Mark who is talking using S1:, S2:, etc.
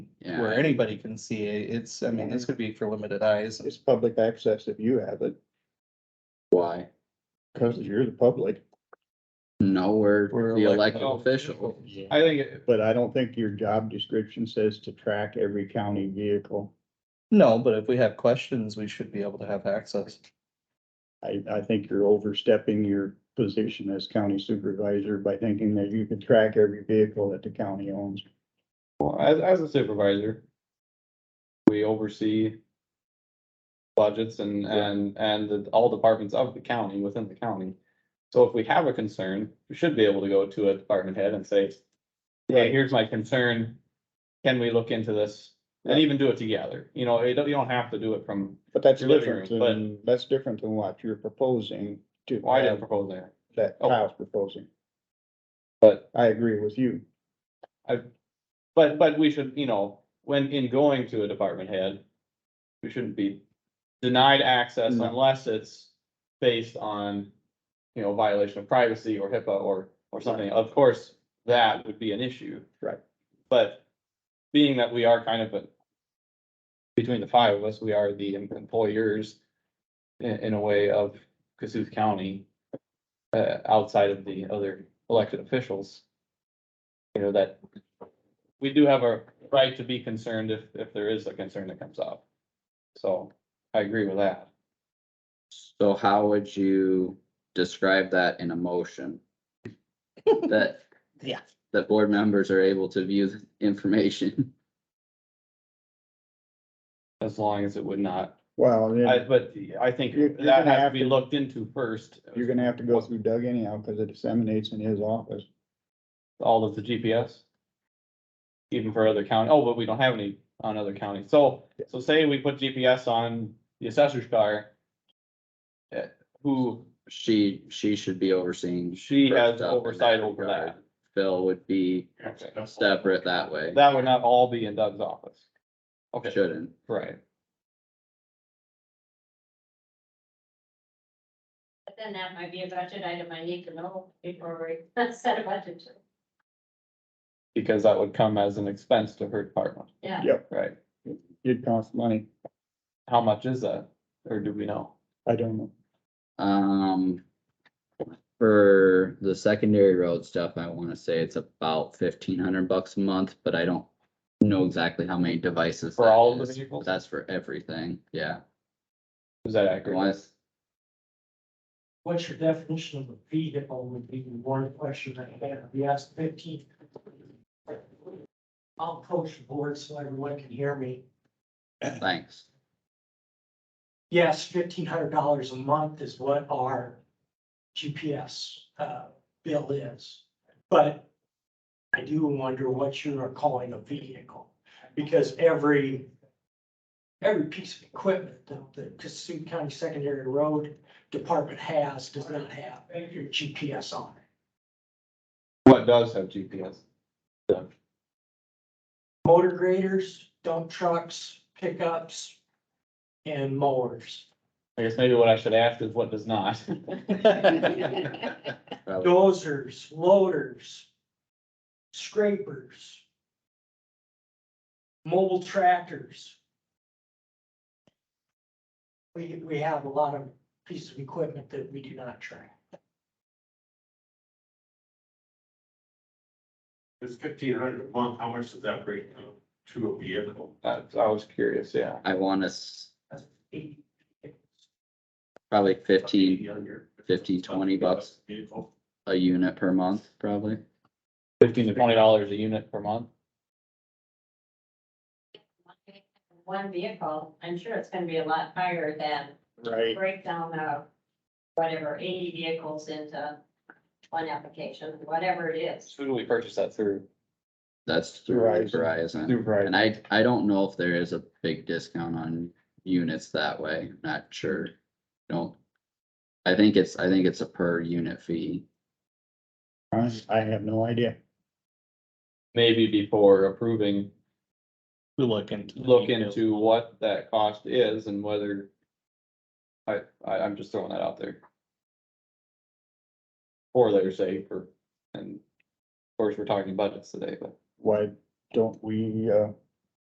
S1: anybody can see it. It's, I mean, this could be for limited eyes.
S2: It's public access if you have it,
S3: Why?
S2: because you're the public,
S3: No, we're
S1: We're
S3: the
S1: elected
S3: elected
S4: oh,
S3: official.
S5: Yeah.
S4: I think, it-
S2: but I don't think your job description says to track every county vehicle.
S1: No, but if we have questions, we should be able to have access.
S2: I, I think you're overstepping your position as county supervisor by thinking that you can track every vehicle that the county owns.
S4: well, as, as a supervisor, we oversee budgets and, and, and the- all departments of the county, within the county. So if we have a concern, we should be able to go to a department head and say, hey, here's my concern. Can we look into this? And even do it together. You know, you don't, you don't have to do it from,
S2: But that's
S4: Your living
S2: different
S4: room,
S2: than, that's different than what you're proposing to
S4: well, I didn't
S2: have
S4: propose that,
S2: that
S4: oh.
S2: Kyle's proposing.
S4: but
S2: I agree with you.
S4: But, but we should, you know, when in going to a department head, we shouldn't be denied access
S2: No.
S4: unless it's based on, you know, violation of privacy or HIPAA or, or something. Of course, that would be an issue.
S2: Right.
S4: But being that we are kind of, a- between the five of us, we are the em- employers in, in a way of Cassuth County, uh, outside of the other elected officials. You know, that we do have a right to be concerned if, if there is a concern that comes up. So I agree with that.
S3: So how would you describe that in a motion? That.
S1: Yeah.
S3: That board members are able to view the information.
S4: As long as it would not,
S2: Well,
S4: I,
S2: then
S4: but I think
S2: You're- you're
S4: that
S2: gonna
S4: has to
S2: have
S4: be
S2: to-
S4: looked into first,
S2: you're gonna have to go through Doug anyhow, because it disseminates in his office.
S4: all of the GPS. Even for other county, oh, but we don't have any on other counties. So, so say we put GPS on the assessor's car. eh, Who,
S3: She, she should be overseeing.
S4: she has
S3: first up in
S4: oversight over that.
S3: regard. Phil would be separate that way.
S4: That would not all be in Doug's office. Okay,
S3: Shouldn't.
S4: right.
S6: But then that might be a budget item I need to know before we set a budget.
S4: because that would come as an expense to her department,
S6: Yeah,
S4: right?
S2: It costs money.
S4: How much is that, or do we know?
S2: I don't know.
S3: Um, for the secondary road stuff, I wanna say it's about fifteen hundred bucks a month, but I don't know exactly how many devices.
S4: For
S3: that
S4: all of the
S3: is, but
S4: vehicles?
S3: That's for everything, yeah.
S4: Is that
S3: I
S4: accurate?
S3: wanna s-
S5: What's your definition of a vehicle would be one question that I have. You asked fifteen. I'll approach the board so everyone can hear me.
S3: Thanks.
S5: Yes, fifteen hundred dollars a month is what our GPS uh bill is. But I do wonder what you are calling a vehicle, because every every piece of equipment that the Cassuth County Secondary Road Department has does not have your GPS on it.
S4: What does have GPS?
S5: Motor graders, dump trucks, pickups, and mowers.
S4: I guess maybe what I should ask is what does not?
S3: Probably-
S5: dozers, loaders, scrapers, mobile tractors. We, we have a lot of pieces of equipment that we do not track.
S7: It's fifteen hundred a month, how much does that break down to a vehicle?
S4: That's- Uh, I was curious, yeah.
S3: I wanna, s-
S5: That's eighty.
S3: probably fifteen
S7: Younger.
S3: 15, 20 bucks.
S7: Vehicle.
S3: a unit per month, probably.
S4: Fifteen to twenty dollars a unit per month?
S6: one vehicle, I'm sure it's gonna be a lot higher than
S2: Right.
S6: breakdown of whatever, eighty vehicles into one application, whatever it is.
S4: Who do we purchase that through?
S3: That's through
S2: Verizon.
S3: Verizon.
S4: Through Verizon.
S3: And I, I don't know if there is a big discount on units that way, not sure, don't. I think it's, I think it's a per unit fee.
S2: I, I have no idea.
S4: Maybe before approving,
S1: We look into. the
S4: look
S1: details.
S4: into what that cost is and whether. I, I, I'm just throwing that out there. Or there's a, for, and of course, we're talking budgets today, but
S2: Why don't we, uh,